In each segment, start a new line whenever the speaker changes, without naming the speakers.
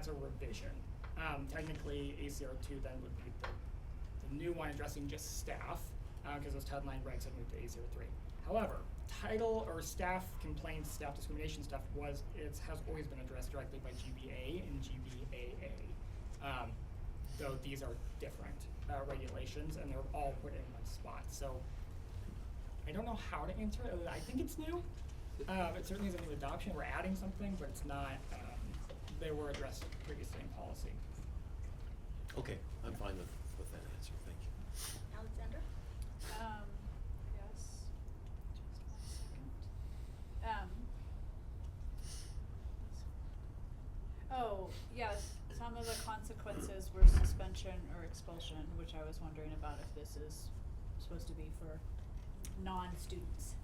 that's a revision. Um, technically, ACR two then would be the, the new one addressing just staff, because those title nine regs had moved to ACR three. However, title or staff complaints, staff discrimination stuff was, it has always been addressed directly by GBA and GBAA. Um, though these are different, uh, regulations, and they're all put in one spot, so I don't know how to answer it, other than I think it's new. Um, it certainly is a new adoption, we're adding something, but it's not, um, they were addressed previously in policy.
Okay, I'm fine with, with that answer, thank you.
Alexandra?
Um, yes, just one second. Um. Oh, yes, some of the consequences were suspension or expulsion, which I was wondering about if this is supposed to be for non-students.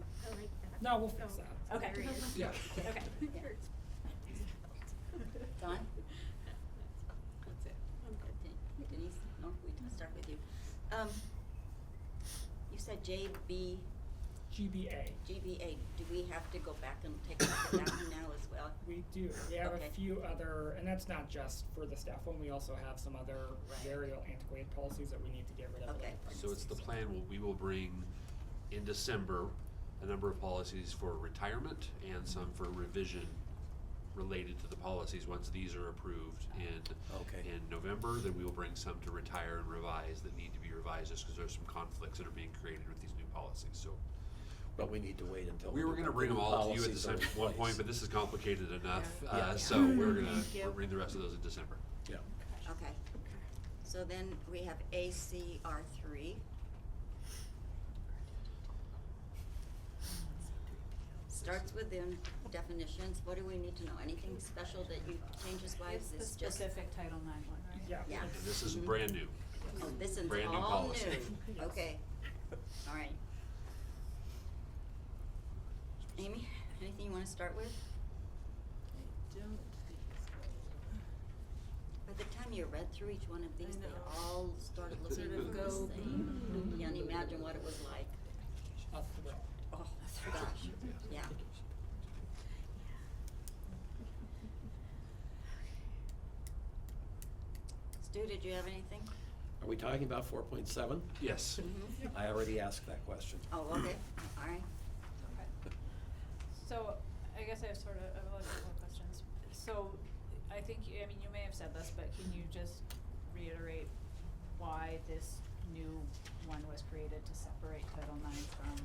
I like that.
No, we'll fix that.
Okay.
There it is.
Yeah.
Okay.
Sure, it's-
Don?
That's it.
I'm good, thank- Denise, no, we can start with you. Um, you said JB,
GBA,
GBA, do we have to go back and take a look at that one now as well?
we do, we have
Okay.
a few other, and that's not just for the staff one, we also have some other
Right.
very antiquated policies that we need to get rid of.
Okay.
So it's the plan, will- we will bring in December, a number of policies for retirement and some for revision related to the policies, once these are approved in,
Okay.
in November, then we will bring some to retire and revise that need to be revised, just because there's some conflicts that are being created with these new policies, so.
But we need to wait until.
We were gonna bring them all to you at the
policies are
same
in
one
place.
point, but this is complicated enough,
Yeah. Yeah.
uh, so we're gonna,
Thank you.
we'll bring the rest of those in December.
Yeah,
Okay, so then we have ACR three. Starts within definitions, what do we need to know, anything special that you changes wise,
It's the
is just?
specific Title IX one, right?
Yeah.
Yeah.
And this is
Mhm.
brand new.
Oh, this is
Brand new
all
policy.
new,
Yes.
okay, all right. Amy, anything you wanna start with? By the time you read through each one of these, they
know.
all started looking
Sort of
at this
go,
thing, you can't imagine what it was like,
A thrill.
oh, gosh, yeah. Stu, did you have anything?
are we talking about four point seven?
Yes.
I already asked that question.
Mm-hmm. Oh, okay, all right,
Okay. So, I guess I have sort of, I have a lot of more questions. So, I think, you- I mean, you may have said this, but can you just reiterate why this new one was created to separate Title IX from,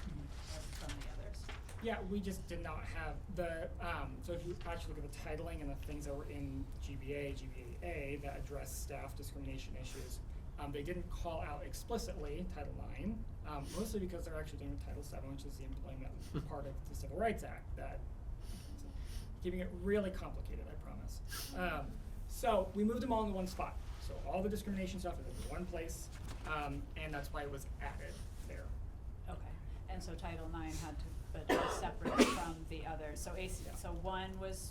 from the others?
Yeah, we just did not have the, um, so if you actually look at the titling and the things that were in GBA, GBAA that address staff discrimination issues, um, they didn't call out explicitly Title IX, um, mostly because they're actually doing Title VII, which is the employment part of the Civil Rights Act that, keeping it really complicated, I promise. Um, so we moved them all into one spot. So all the discrimination stuff is in one place, um, and that's why it was added there.
Okay, and so Title IX had to, but was separate from the others, so AC,
Yeah.
so one was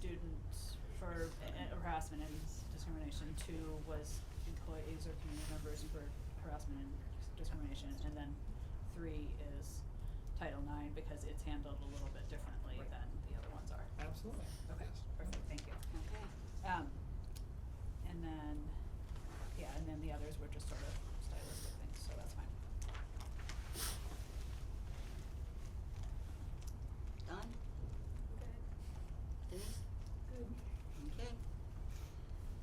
students for uh, harassment and discrimination, two was employees or community members for harassment and discrimination, and then three is Title IX, because it's handled a little bit differently
Right.
than the other ones are.
Absolutely.
Okay,
Yes.
perfect, thank you.
okay.
Um, and then, yeah, and then the others were just sort of stylistic things, so that's fine.
Don, Denise? Good. Okay.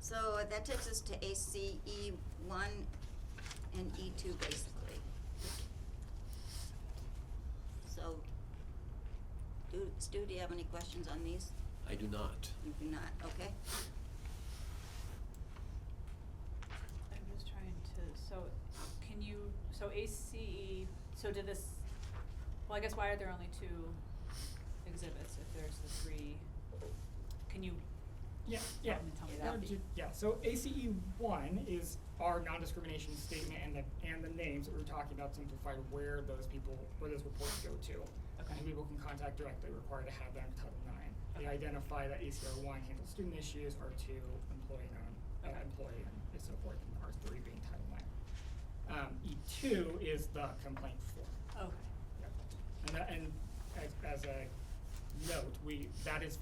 So that takes us to ACE one and E two basically. So, do, Stu, do you have any questions on these?
I do not.
You do not, okay?
I'm just trying to, so can you, so ACE, so did this, well, I guess why are there only two exhibits if there's the three? Can you,
Yeah, yeah.
Tell me- tell me
Yeah,
that.
ju- Yeah, so ACE one is our non-discrimination statement and the, and the names that we we're talking about simplified where those people, where those reports go to.
Okay.
And people can contact directly, required to have that in Title IX. They
Okay.
identify that ACR one handles student issues, R two employee non, uh,
Okay.
employee and so forth, and R three being Title IX. Um, E two is the complaint form.
okay,
Yep. And that, and as, as a note, we, that is